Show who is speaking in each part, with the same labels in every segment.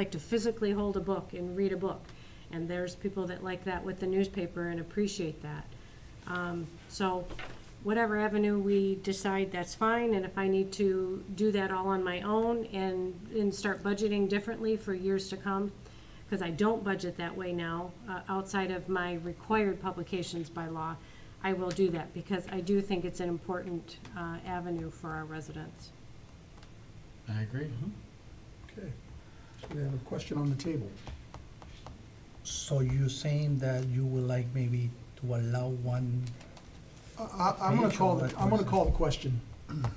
Speaker 1: like to physically hold a book and read a book. And there's people that like that with the newspaper and appreciate that. Um, So whatever avenue we decide, that's fine, and if I need to do that all on my own and, and start budgeting differently for years to come, because I don't budget that way now, uh, outside of my required publications by law, I will do that, because I do think it's an important uh, avenue for our residents.
Speaker 2: I agree.
Speaker 3: Okay, so we have a question on the table.
Speaker 4: So you're saying that you would like maybe to allow one,
Speaker 3: I, I, I'm gonna
Speaker 4: Page
Speaker 3: call,
Speaker 4: or
Speaker 3: the-
Speaker 4: what
Speaker 3: I'm gonna
Speaker 4: person?
Speaker 3: call the question. I'm
Speaker 5: Is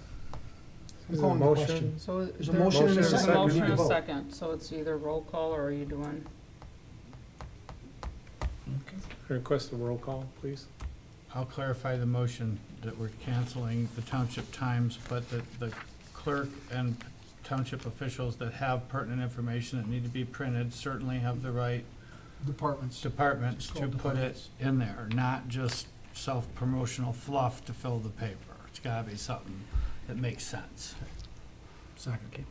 Speaker 5: there a
Speaker 3: calling the question.
Speaker 5: motion?
Speaker 6: So is
Speaker 3: There's a
Speaker 6: there-
Speaker 3: motion and a
Speaker 6: there's
Speaker 3: second. We
Speaker 6: motion
Speaker 3: need to
Speaker 6: and a
Speaker 3: vote.
Speaker 6: second, so it's either roll call or are you doing,
Speaker 5: Request a roll call, please.
Speaker 2: I'll clarify the motion that we're canceling the township times, but that the clerk and township officials that have pertinent information that need to be printed certainly have the right
Speaker 3: Departments.
Speaker 2: departments
Speaker 3: Just
Speaker 2: to
Speaker 3: call
Speaker 2: put it
Speaker 3: departments.
Speaker 2: in there, not just self-promotional fluff to fill the paper. It's gotta be something that makes sense.
Speaker 3: Second.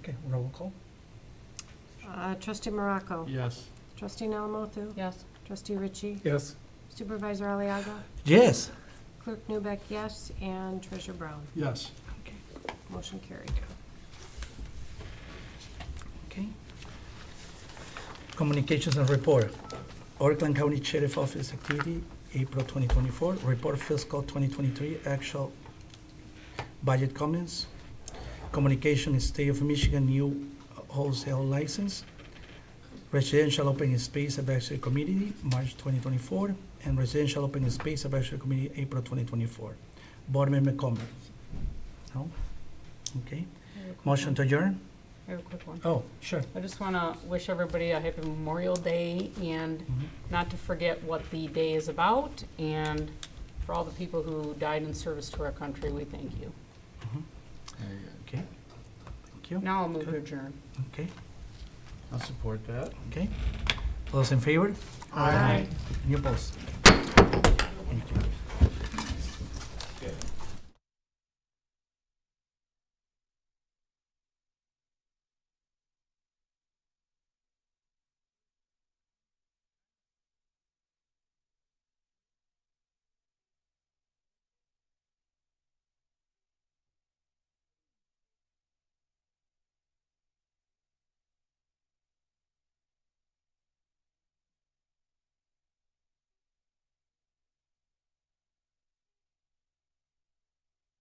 Speaker 4: okay, roll call?
Speaker 1: Uh, Trustee Morocco?
Speaker 2: Yes.
Speaker 1: Trustee Alamothu?
Speaker 6: yes?
Speaker 1: Trustee Ritchie?
Speaker 5: Yes.
Speaker 1: Supervisor Aliaga?
Speaker 4: Yes.
Speaker 1: Clerk Newbeck, yes, and Treasurer Brown.
Speaker 3: Yes.
Speaker 1: Motion carried.
Speaker 4: Okay. Communications and report. Oakland County Sheriff Office activity, April 2024, report fiscal 2023, actual budget comments. Communication in State of Michigan new wholesale license. Residential Open Space Advisory Committee, March 2024, and Residential Open Space Advisory Committee, April 2024. Board member comments? No? Okay.
Speaker 6: I have a quick
Speaker 4: Motion
Speaker 6: one.
Speaker 4: to adjourn?
Speaker 6: I have a quick one.
Speaker 4: Oh, sure.
Speaker 6: I just want to wish everybody a happy Memorial Day and
Speaker 3: Mm-hmm.
Speaker 6: not to forget what the day is about. And for all the people who died in service to our country, we thank you.
Speaker 2: There you go.
Speaker 4: Okay. Thank you.
Speaker 6: Now I'll move to
Speaker 4: Good.
Speaker 6: adjourn.
Speaker 4: Okay,
Speaker 2: I'll support that.
Speaker 4: okay. All Those in favor?
Speaker 6: Aye.
Speaker 4: Any opposed? Thank you.